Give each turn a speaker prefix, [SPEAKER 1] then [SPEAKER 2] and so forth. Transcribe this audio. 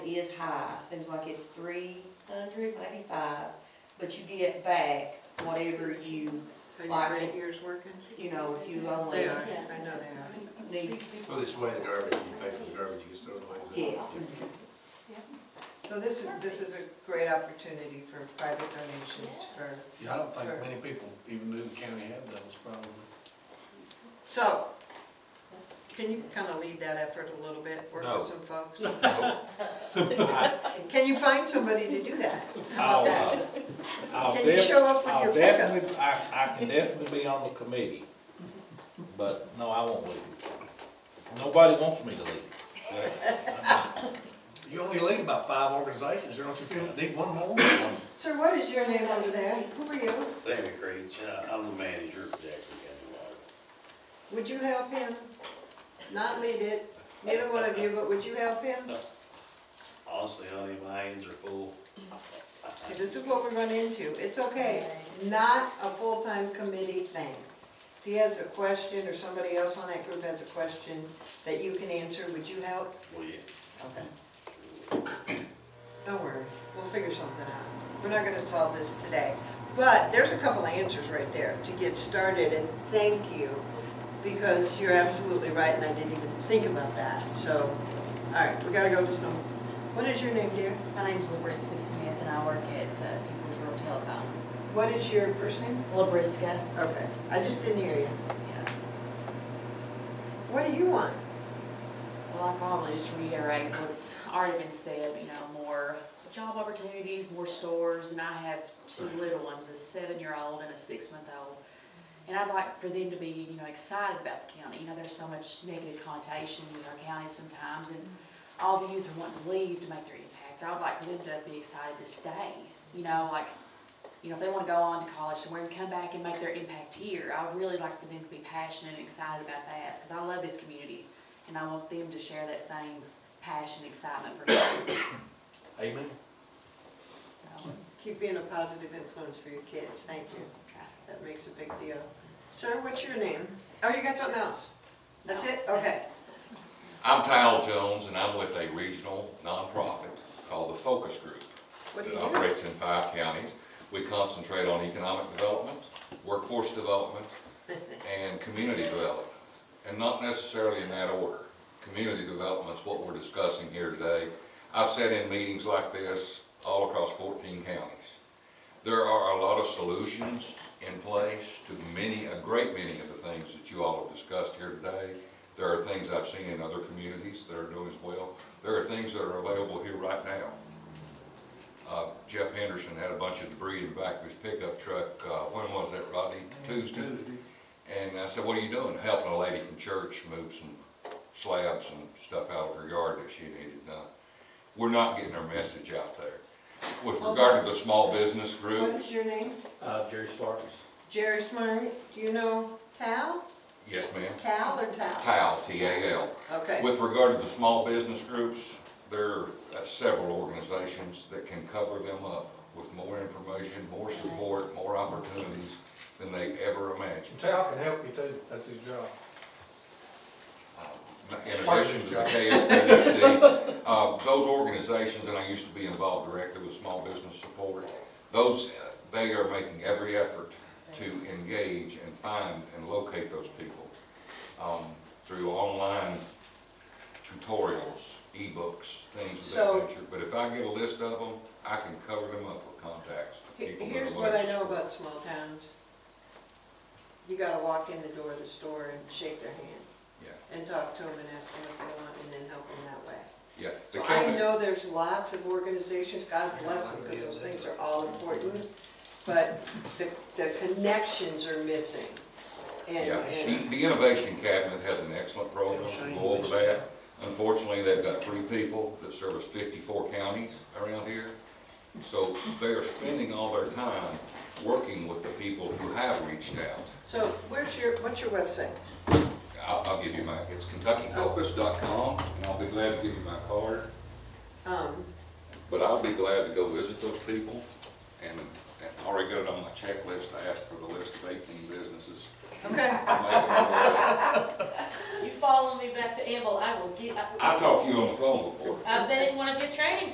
[SPEAKER 1] is high, seems like it's three hundred, maybe five, but you get back whatever you,
[SPEAKER 2] Are your
[SPEAKER 1] Like-
[SPEAKER 2] grant years working?
[SPEAKER 1] you know, if you
[SPEAKER 2] They
[SPEAKER 1] only
[SPEAKER 2] are, I know they
[SPEAKER 1] need,
[SPEAKER 3] Well, this way the garbage, you pay for the garbage, you just throw it away.
[SPEAKER 1] yes.
[SPEAKER 2] are. So this is, this is a great opportunity for private donations for,
[SPEAKER 4] Yeah, I don't think
[SPEAKER 2] Sure.
[SPEAKER 4] many people even knew the county had those probably.
[SPEAKER 2] so, can you kind of lead that effort a little bit, work
[SPEAKER 3] No.
[SPEAKER 2] with some folks? Can you find somebody to do that? How
[SPEAKER 5] I'll,
[SPEAKER 2] about that?
[SPEAKER 5] uh, I'll
[SPEAKER 2] Can you
[SPEAKER 5] def-
[SPEAKER 2] show up with
[SPEAKER 5] I'll
[SPEAKER 2] your pickup?
[SPEAKER 5] definitely- I, I can definitely be on the committee, but no, I won't leave. Nobody wants me to leave.
[SPEAKER 4] You only lead about five organizations, don't you feel, need one more?
[SPEAKER 2] Sir, what is your name over there? Who are you?
[SPEAKER 6] Sammy Creech, uh, I'm the manager of Jackson County Water.
[SPEAKER 2] Would you help him? Not lead it, neither one of you, but would you help him?
[SPEAKER 6] Honestly, honey, my hands are full.
[SPEAKER 2] See, this is what we run into. It's okay, not a full-time committee thing. If he has a question, or somebody else on that group has a question that you can answer, would you help?
[SPEAKER 6] Will you?
[SPEAKER 2] Okay. Don't worry, we'll figure something out. We're not gonna solve this today. But there's a couple of answers right there to get started, and thank you, because you're absolutely right, and I didn't even think about that. So, all right, we gotta go to some, what is your name, dear?
[SPEAKER 7] My name's Labrisca Smith and I work at uh, People's Rural Telephone.
[SPEAKER 2] What is your first name?
[SPEAKER 7] Labrisca,
[SPEAKER 2] Okay, I just didn't hear you.
[SPEAKER 7] yeah.
[SPEAKER 2] What do you want?
[SPEAKER 7] Well, I probably just reiterate what's already been said, you know, more job opportunities, more stores, and I have two little ones, a seven-year-old and a six-month-old. And I'd like for them to be, you know, excited about the county, you know, there's so much negative connotation in our county sometimes, and all the youth are wanting to leave to make their impact, I'd like for them to be excited to stay, you know, like, you know, if they wanna go on to college somewhere and come back and make their impact here, I would really like for them to be passionate and excited about that, because I love this community and I want them to share that same passion, excitement for me.
[SPEAKER 4] Amen.
[SPEAKER 7] So,
[SPEAKER 2] Keep being a positive influence for your kids, thank you.
[SPEAKER 7] try.
[SPEAKER 2] That makes a big deal. Sir, what's your name? Oh, you got something else? That's it? Okay.
[SPEAKER 8] I'm Kyle Jones, and I'm with a regional nonprofit called the Focus Group.
[SPEAKER 2] What do you
[SPEAKER 8] That
[SPEAKER 2] do?
[SPEAKER 8] operates in five counties. We concentrate on economic development, workforce development, and community development. And not necessarily in that order. Community development's what we're discussing here today. I've sat in meetings like this all across fourteen counties. There are a lot of solutions in place to many, a great many of the things that you all have discussed here today. There are things I've seen in other communities that are doing as well. There are things that are available here right now. Uh, Jeff Henderson had a bunch of debris in the back of his pickup truck, uh, when was that, Rodney? Tuesday?
[SPEAKER 4] Tuesday.
[SPEAKER 8] And I said, what are you doing? Helping a lady from church move some slabs and stuff out of her yard that she needed done. We're not getting our message out there. With regard to the small business
[SPEAKER 2] What
[SPEAKER 8] group,
[SPEAKER 2] is your name?
[SPEAKER 6] Uh, Jerry Sparks.
[SPEAKER 2] Jerry Smart, do you know Tal?
[SPEAKER 8] yes ma'am,
[SPEAKER 2] Cal or Tal?
[SPEAKER 8] TAL, T-A-L.
[SPEAKER 2] Okay.
[SPEAKER 8] With regard to the small business groups, there are uh, several organizations that can cover them up with more information, more support, more opportunities than they ever imagined.
[SPEAKER 4] Tal can help you too, that's his job.
[SPEAKER 8] in addition to the KSBDC, uh, those organizations, and I used to be involved directly with small business support, those, uh, they are making every effort to engage and find and locate those people um, through online tutorials, ebooks, things
[SPEAKER 2] So-
[SPEAKER 8] of that nature. But if I get a list of them, I can cover them up with contacts, of
[SPEAKER 2] He-
[SPEAKER 8] people that are.
[SPEAKER 2] Here's what I
[SPEAKER 8] less-
[SPEAKER 2] know about small towns. You gotta walk in the door of the store and shake their hand.
[SPEAKER 8] Yeah.
[SPEAKER 2] And talk to them and ask them what they want and then help them that way.
[SPEAKER 8] Yeah. the
[SPEAKER 2] So I
[SPEAKER 8] county-
[SPEAKER 2] know there's lots of organizations, God bless them, because those things are all important, but the, the connections are missing. And,
[SPEAKER 8] Yeah,
[SPEAKER 2] and
[SPEAKER 8] she- the Innovation Cabinet has an excellent program, we'll go over that. Unfortunately, they've got three people that service fifty-four counties around here. So they are spending all their time working with the people who have reached out.
[SPEAKER 2] so where's your, what's your website?
[SPEAKER 8] I'll, I'll give you my, it's kentuckyfocus.com, and I'll be glad to give you my card.
[SPEAKER 2] Um,
[SPEAKER 8] But I'll be glad to go visit those people and and I already got it on my checklist, I asked for the list of eighteen businesses.
[SPEAKER 2] Okay.
[SPEAKER 8] I'll make it all right.
[SPEAKER 9] You follow me back to Amble, I will get, I will-
[SPEAKER 8] I talked to you on the phone before.
[SPEAKER 9] I've been in one of your trainings